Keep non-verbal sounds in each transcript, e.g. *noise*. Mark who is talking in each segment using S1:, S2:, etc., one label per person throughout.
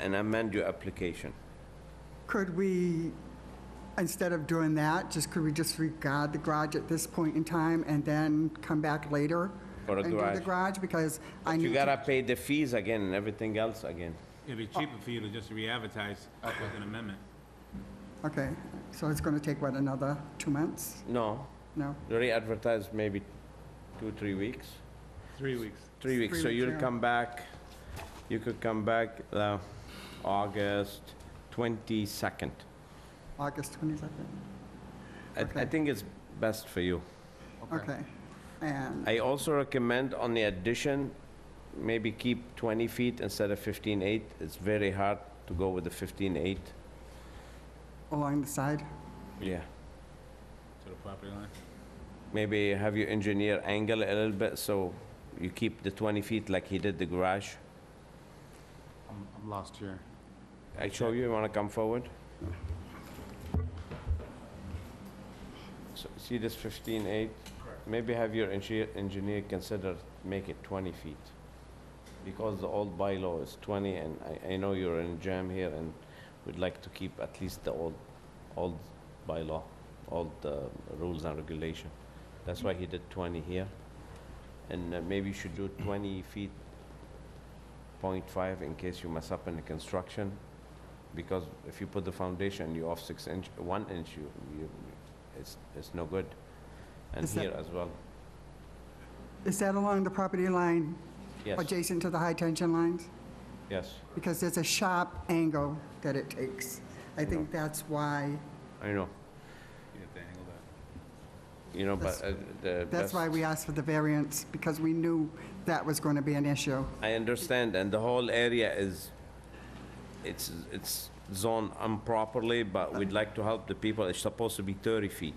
S1: and amend your application.
S2: Could we, instead of doing that, just, could we just regard the garage at this point in time and then come back later?
S1: For the
S2: And do
S1: garage.
S2: the garage, because I
S1: You
S2: need, to-
S1: gotta pay the fees again and everything else again.
S3: It'd be cheaper for you to just re-advertise with an amendment.
S2: okay, so it's gonna take, what, another two months?
S1: No,
S2: No?
S1: re-advertise maybe two, three weeks.
S3: Three weeks.
S1: Three weeks, so
S2: Three weeks,
S1: you'll
S2: yeah.
S1: come back, you could come back uh, August 22nd.
S2: August 22nd?
S1: I- I
S2: Okay.
S1: think it's best for you.
S2: Okay. And,
S1: I also recommend on the addition, maybe keep 20 feet instead of 15.8. It's very hard to go with the 15.8.
S2: along the side?
S1: Yeah.
S3: To the property line.
S1: Maybe have your engineer angle a little bit so you keep the 20 feet like he did the garage.
S4: I'm, I'm lost here.
S1: I show you, you wanna come forward? So, see this 15.8? Maybe have your engineer, engineer consider make it 20 feet. Because the old bylaw is 20, and I, I know you're in jam here, and we'd like to keep at least the old, old bylaw, old uh, rules and regulation. That's why he did 20 here. And uh, maybe you should do 20 feet 0.5 in case you mess up in the construction, because if you put the foundation, you're off six inch, one inch, you, you, it's, it's no good. And
S2: Is that-
S1: here as well,
S2: Is that along the property line
S1: yes,
S2: adjacent to the high-tension lines?
S1: yes,
S2: Because there's a sharp angle that it takes. I think that's why,
S1: I know,
S3: You have to angle that.
S1: you know, but uh,
S2: That's-
S1: the
S2: that's why
S1: best-
S2: we asked for the variance, because we knew that was going to be an issue.
S1: I understand, and the whole area is, it's, it's zoned improperly, but we'd like to help the people, it's supposed to be 30 feet.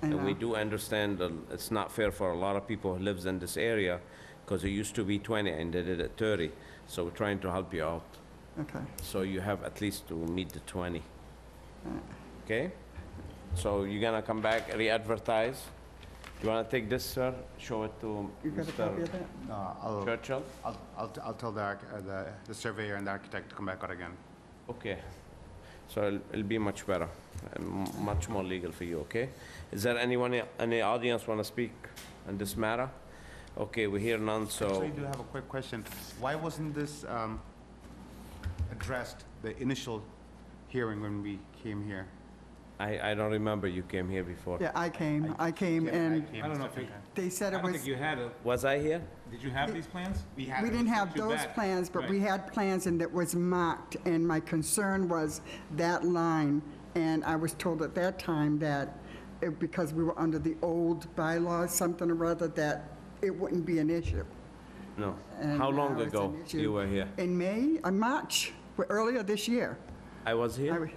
S2: I
S1: And we
S2: know.
S1: do understand that it's not fair for a lot of people who lives in this area, because it used to be 20 and they did it 30, so we're trying to help you out.
S2: Okay.
S1: So you have at least to meet the 20. Okay? So you're gonna come back, re-advertise. You wanna take this, sir? Show it to
S2: You got a copy
S1: Mr.
S2: of that?
S4: No, Uh, I'll,
S1: Churchill?
S4: I'll, I'll, I'll tell the, arch- uh, the, the surveyor and the architect to come back out again.
S1: Okay. So it'll- it'll be much better, and m- much more legal for you, okay? Is there anyone, i- any audience wanna speak on this matter? Okay, we hear none,
S3: Oh.
S4: Actually,
S1: so
S4: I do have a quick question. Why wasn't this, um, addressed, the initial hearing when we came here?
S1: I, I don't remember you came here before.
S2: Yeah, I came, I came,
S4: Yeah,
S2: and
S4: came
S3: I don't know if
S4: second
S3: it-
S4: time.
S2: they said
S3: I
S2: it
S3: don't
S2: was,
S3: think you had a,
S1: Was I here?
S3: did you have these plans?
S4: We had
S2: we
S4: it.
S2: didn't have
S3: Too
S2: those
S3: bad.
S2: plans, but we
S3: Right.
S2: had plans and it was marked, and my concern was that line, and I was told at that time that, it- because we were under the old bylaws, something or other, that it wouldn't be an issue.
S1: No.
S2: And
S1: How long
S2: now it's
S1: ago
S2: an issue.
S1: you were here?
S2: In May, uh, March, w- earlier this year.
S1: I was
S2: I
S1: here?
S2: w-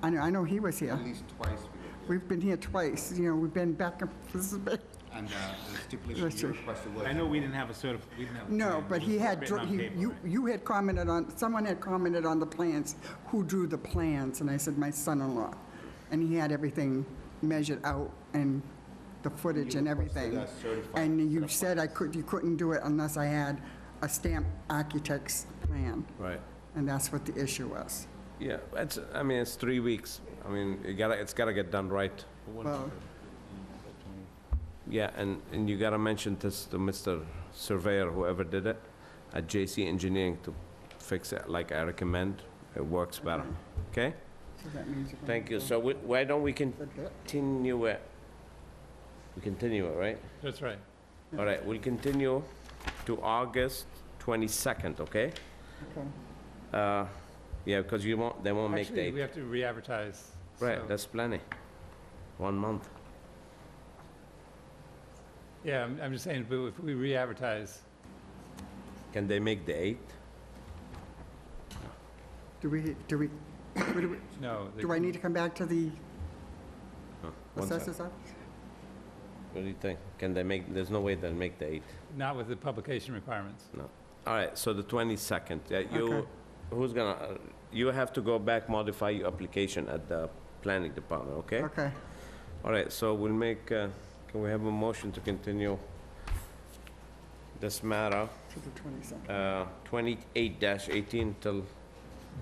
S2: I know, I know he was here.
S4: At least twice we did.
S2: We've been here twice, you know, we've been back and forth. *laughs*
S4: And, uh, the stipulation
S2: That's
S4: you
S2: right.
S4: requested was.
S3: I know we didn't have a certif, we didn't have. a
S2: No,
S3: plan.
S2: but
S3: It
S2: he
S3: was
S2: had,
S3: written
S2: dr-
S3: on
S2: he-
S3: paper,
S2: you,
S3: right?
S2: you had commented on, someone had commented on the plans, who drew the plans, and I said, my son-in-law. And he had everything measured out and the footage and everything. And you said I could, you couldn't do it unless I had a stamped architect's plan,
S1: Right.
S2: and that's what the issue was.
S1: Yeah, it's, I mean, it's three weeks. I mean, you gotta, it's gotta get done right.
S2: Well,
S1: Yeah, and, and you gotta mention this to Mr. Surveyor, whoever did it, at JC Engineering to fix it like I recommend. It works better, okay?
S2: so that means you're gonna
S1: Thank you.
S2: go-
S1: So wh- why don't we
S2: That's it?
S1: continue it? We continue it, right?
S5: That's right.
S1: All right, we'll continue to August 22nd, okay?
S2: Okay.
S1: Uh, Yeah, because you won't, they won't make
S5: Actually, we
S1: date.
S5: have to re-advertise.
S1: Right,
S5: so-
S1: that's plenty. One month.
S5: Yeah, I'm, I'm just saying, but if we re-advertise,
S1: Can they make the 8th?
S2: Do we, do we, *coughs* what do we-
S5: no. they
S2: do I
S5: can-
S2: need to come back to the
S1: Huh, one sec.
S2: assessors office?
S1: What do you think? Can they make, there's no way they'll make the 8th.
S5: Not with the publication requirements.
S1: All right, so the 22nd, yeah, you,
S2: Okay.
S1: who's gonna, uh, you have to go back, modify your application at the planning department, okay?
S2: Okay.
S1: All right, so we'll make, uh, can we have a motion to continue this matter,
S2: To the 22nd.
S1: uh, 28-18 till